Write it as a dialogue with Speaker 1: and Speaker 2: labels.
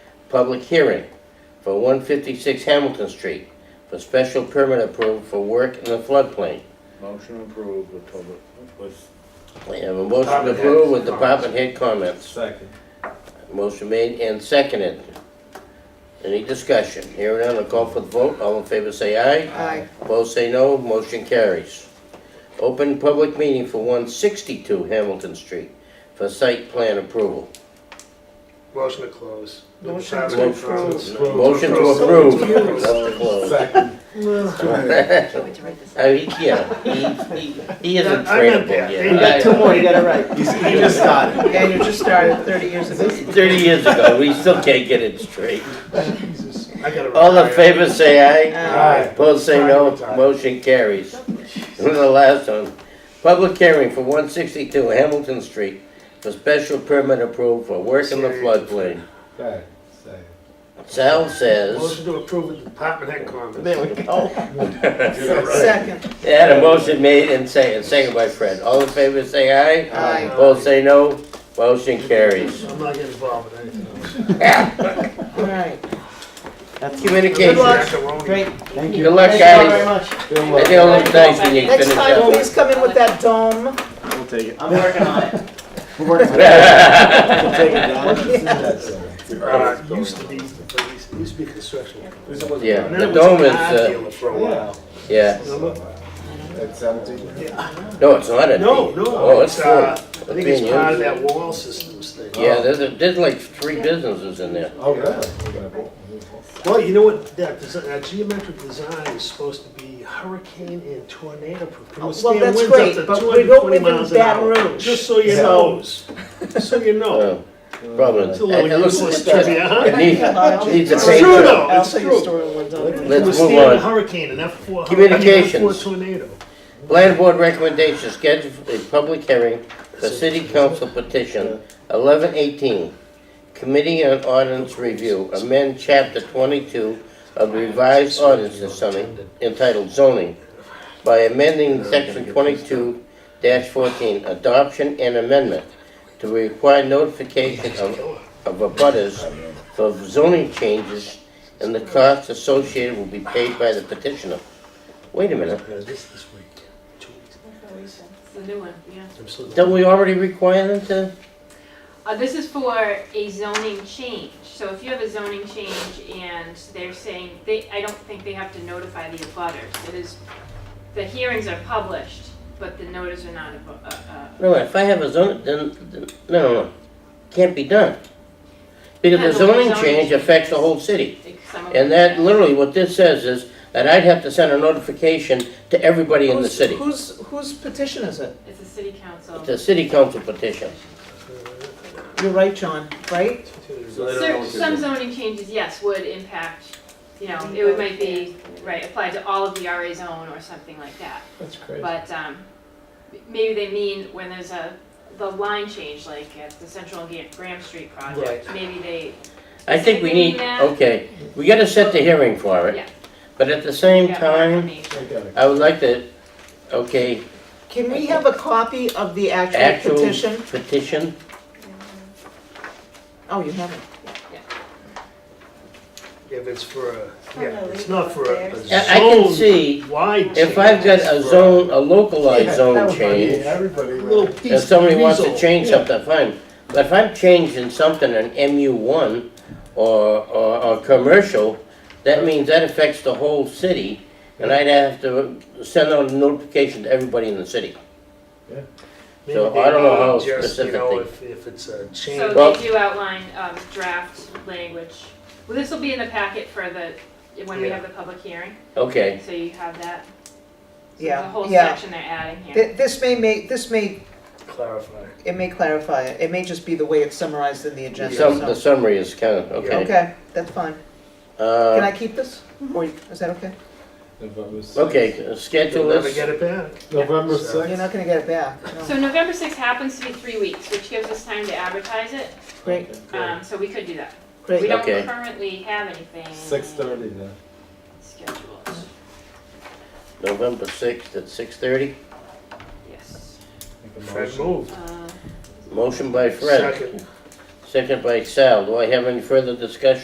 Speaker 1: public hearing for one fifty-six Hamilton Street for special permit approval for work in the floodplain.
Speaker 2: Motion approved with public, with
Speaker 1: We have a motion
Speaker 2: Department
Speaker 1: approved with
Speaker 2: heads.
Speaker 1: department head comments.
Speaker 2: second.
Speaker 1: Motion made and seconded. Any discussion? Hearing none, I'll call for the vote. All in favor say aye.
Speaker 3: Aye.
Speaker 1: Opposed say no, motion carries. Open public meeting for one sixty-two Hamilton Street for site plan approval.
Speaker 4: Motion to close.
Speaker 3: Motion to
Speaker 4: Department of Finance.
Speaker 3: approve.
Speaker 1: Motion to approve, not to close.
Speaker 5: Can't wait to write this.
Speaker 1: I mean, Oh, yeah, he, he, he isn't
Speaker 3: I'm in
Speaker 1: trainable
Speaker 3: there.
Speaker 1: yet.
Speaker 3: You got two
Speaker 1: I-
Speaker 3: more you gotta write.
Speaker 2: He just started.
Speaker 3: And you just started thirty years ago.
Speaker 1: Thirty years ago, we still can't get it straight.
Speaker 4: I gotta.
Speaker 1: All in
Speaker 4: retire.
Speaker 1: favor, say aye.
Speaker 3: Aye.
Speaker 1: Opposed, say no. Motion carries. And the last one, public hearing for one sixty-two Hamilton Street for special permit approval for work in the floodplain. Sal says,
Speaker 4: Motion to approve with department head comments.
Speaker 3: There we go.
Speaker 4: Right.
Speaker 3: Second.
Speaker 1: they had a motion made and say, and second by Fred. All in favor, say aye.
Speaker 3: Aye.
Speaker 1: Opposed, say no. Motion carries.
Speaker 4: I'm not getting involved with anything else.
Speaker 3: All right.
Speaker 1: Communication.
Speaker 3: Good luck.
Speaker 4: Macaroni.
Speaker 3: Great.
Speaker 2: Thank
Speaker 1: Good
Speaker 2: you.
Speaker 1: luck,
Speaker 3: Thank you very
Speaker 1: guys.
Speaker 3: much.
Speaker 1: I think it'll look nice when you finish
Speaker 3: Next time,
Speaker 1: up.
Speaker 3: please come in with that dome.
Speaker 2: We'll take it.
Speaker 3: I'm working on it.
Speaker 2: We're working on it.
Speaker 1: All
Speaker 2: We'll take it,
Speaker 4: Uh, used to be, it used- it used to be construction.
Speaker 1: Yeah.
Speaker 4: And then it
Speaker 1: The
Speaker 4: was a
Speaker 1: dome is,
Speaker 4: car
Speaker 1: uh,
Speaker 4: dealer for a while.
Speaker 1: Yeah,
Speaker 4: Remember?
Speaker 6: It's empty.
Speaker 1: no, it's not empty.
Speaker 4: No, no.
Speaker 1: Oh, it's full.
Speaker 4: uh,
Speaker 1: It's
Speaker 4: I think
Speaker 1: being
Speaker 4: it's part of
Speaker 1: used.
Speaker 4: that wall systems thing.
Speaker 1: Yeah, there's, a- there's like three businesses in there.
Speaker 6: Oh, really?
Speaker 4: Well, you know what, that, desi- that geometric design is supposed to be hurricane and tornado proof. It will
Speaker 3: Well,
Speaker 4: stand
Speaker 3: that's
Speaker 4: winds up
Speaker 3: great,
Speaker 4: to
Speaker 3: but we don't
Speaker 4: 220
Speaker 3: live in
Speaker 4: miles an
Speaker 3: Baton
Speaker 4: hour.
Speaker 3: Rouge.
Speaker 4: Just so you
Speaker 6: Yeah.
Speaker 4: know, so you know.
Speaker 1: Oh, Probably.
Speaker 4: It's a little
Speaker 1: It- it looks-
Speaker 4: useless
Speaker 1: it-
Speaker 4: trivia, huh?
Speaker 1: It needs, it needs a
Speaker 4: It's
Speaker 1: paint.
Speaker 4: true,
Speaker 1: job.
Speaker 4: though.
Speaker 3: I'll
Speaker 4: It's
Speaker 3: tell you
Speaker 4: true.
Speaker 3: a story one time.
Speaker 1: Let's
Speaker 4: It will
Speaker 1: move
Speaker 4: stand
Speaker 1: on.
Speaker 4: a hurricane and F four. Four
Speaker 1: Communications.
Speaker 4: tornado. Uh,
Speaker 1: Land board recommendation, schedule a public hearing for city council petition eleven eighteen. Committee on Ordinance Review, amend chapter twenty-two of the revised ordinance in zoning- entitled zoning by amending section twenty-two fourteen, adoption and amendment to require notification of, of abutters for zoning changes and the costs associated will be paid by the petitioner. Wait a minute.
Speaker 4: This this week, two weeks.
Speaker 5: It's the new one, yeah.
Speaker 4: I'm so
Speaker 1: Don't we already require them to?
Speaker 5: Uh, this is for a zoning change, so if you have a zoning change and they're saying, they, I don't think they have to notify the abutters. It is, the hearings are published, but the notices are not, abu- uh, uh,
Speaker 1: No, if I have a zoning, then, then- no, no, no, can't be done. Because the
Speaker 5: Yeah, the way
Speaker 1: zoning
Speaker 5: zoning
Speaker 1: change
Speaker 5: change
Speaker 1: affects the
Speaker 5: is.
Speaker 1: whole city.
Speaker 5: like some of them.
Speaker 1: And that, literally, what this says is that I'd have to send a notification to everybody in the
Speaker 3: Whose-
Speaker 1: city.
Speaker 3: Whose, whose petition is it?
Speaker 5: It's a city council.
Speaker 1: The city council petition.
Speaker 4: Uh,
Speaker 3: You're right, John, right?
Speaker 2: I don't know
Speaker 5: Cer-
Speaker 2: what to
Speaker 5: Some
Speaker 2: do.
Speaker 5: zoning changes, yes, would impact, you know, it would might be, right, applied to all of the RA zone or something like that.
Speaker 3: That's crazy.
Speaker 5: But um, maybe they mean when there's a, the line change, like at the Central Ga- Graham Street project, maybe they,
Speaker 1: I think we need,
Speaker 5: Does that mean that-
Speaker 1: okay, we gotta set the hearing for it.
Speaker 5: Yeah.
Speaker 1: But at the same
Speaker 5: got more
Speaker 1: time,
Speaker 5: information.
Speaker 6: Okay.
Speaker 1: I would like to, okay,
Speaker 3: Can we have a copy of the actual
Speaker 1: actual
Speaker 3: petition?
Speaker 1: petition,
Speaker 3: Oh, you haven't.
Speaker 4: If it's for a, yeah, it's not for a a
Speaker 1: I I can
Speaker 4: zone
Speaker 1: see,
Speaker 4: wide.
Speaker 1: if I've got a zone, a localized
Speaker 6: Yeah,
Speaker 1: zone
Speaker 6: that would be-
Speaker 1: change,
Speaker 6: Everybody.
Speaker 4: Little
Speaker 6: would.
Speaker 4: piece.
Speaker 1: If somebody wants to
Speaker 4: drizzle.
Speaker 1: change
Speaker 4: Yeah.
Speaker 1: something, fine. But if I'm changing something in MU one or, or, or commercial, that means that affects the whole city. And I'd have to send out a notification to everybody in the city.
Speaker 4: Maybe
Speaker 1: So
Speaker 4: they
Speaker 1: I don't know
Speaker 4: need
Speaker 1: how
Speaker 4: just, you know,
Speaker 1: specific
Speaker 4: If if it's a change.
Speaker 1: Well-
Speaker 5: So they do outline um, draft language. Well, this will be in the packet for the, when we
Speaker 4: Yeah.
Speaker 5: have the public hearing,
Speaker 1: Okay,
Speaker 5: so you have that. So there's a
Speaker 3: Yeah,
Speaker 5: whole
Speaker 3: yeah.
Speaker 5: section they're adding here.
Speaker 3: Th- This may make, this may,
Speaker 4: Clarify.
Speaker 3: it may clarify it. It may just be the way it's summarized in the agenda.
Speaker 1: some,
Speaker 3: so-
Speaker 1: the summary is kind of, okay.
Speaker 3: Okay, that's fine. Can I
Speaker 1: Uh,
Speaker 3: keep this? Or is that okay?
Speaker 6: November sixth.
Speaker 1: okay, schedule
Speaker 4: You'll never
Speaker 1: this.
Speaker 4: get it back.
Speaker 6: November
Speaker 4: So-
Speaker 3: You're
Speaker 6: sixth.
Speaker 3: not gonna get it back. no.
Speaker 5: So November 6th happens to be three weeks, which gives us time to advertise it,
Speaker 3: Great,
Speaker 5: um, so we could do that. We
Speaker 3: great.
Speaker 5: don't
Speaker 1: Okay.
Speaker 5: currently have anything.
Speaker 6: Six thirty then.
Speaker 5: Scheduled,
Speaker 1: November sixth at six thirty.
Speaker 5: yes.
Speaker 6: Make a
Speaker 4: Fred
Speaker 6: motion.
Speaker 4: moved.
Speaker 5: Uh,
Speaker 1: Motion by Fred,
Speaker 4: Second.
Speaker 1: second by Sal. Do I have any further discussion?